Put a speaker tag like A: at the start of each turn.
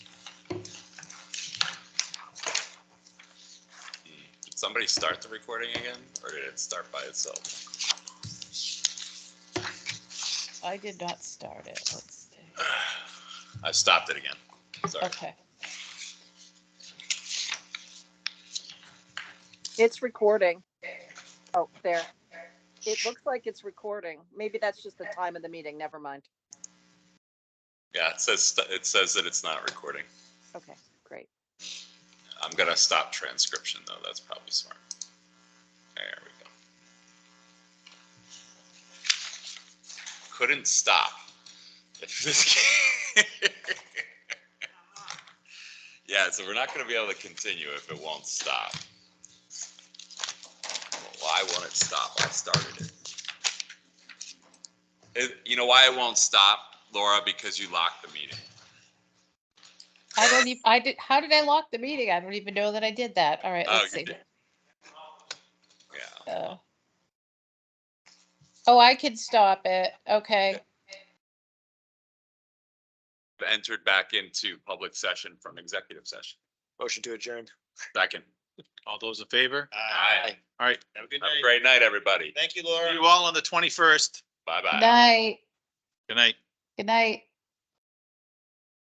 A: somebody start the recording again, or did it start by itself?
B: I did not start it. Let's see.
A: I stopped it again. Sorry.
B: Okay.
C: It's recording. Oh, there. It looks like it's recording. Maybe that's just the time of the meeting. Never mind.
A: Yeah, it says, st- it says that it's not recording.
C: Okay, great.
A: I'm gonna stop transcription though, that's probably smart. There we go. Couldn't stop. If this- Yeah, so we're not gonna be able to continue if it won't stop. Why won't it stop? I started it. It, you know why it won't stop, Laura? Because you locked the meeting.
B: I don't even, I did, how did I lock the meeting? I don't even know that I did that. All right,
A: Oh,
B: let's
A: you
B: see.
A: did. Yeah,
B: Uh, Oh, I can stop it. Okay.
A: entered back into public session from executive session.
D: Motion to adjourn.
A: Second.
E: All those in favor?
A: Aye.
E: All right,
D: Have a good
A: Have a
D: night.
A: great night, everybody.
D: Thank you, Laura.
E: you all on the twenty-first.
A: Bye bye.
B: Night.
E: Good night.
B: Good night.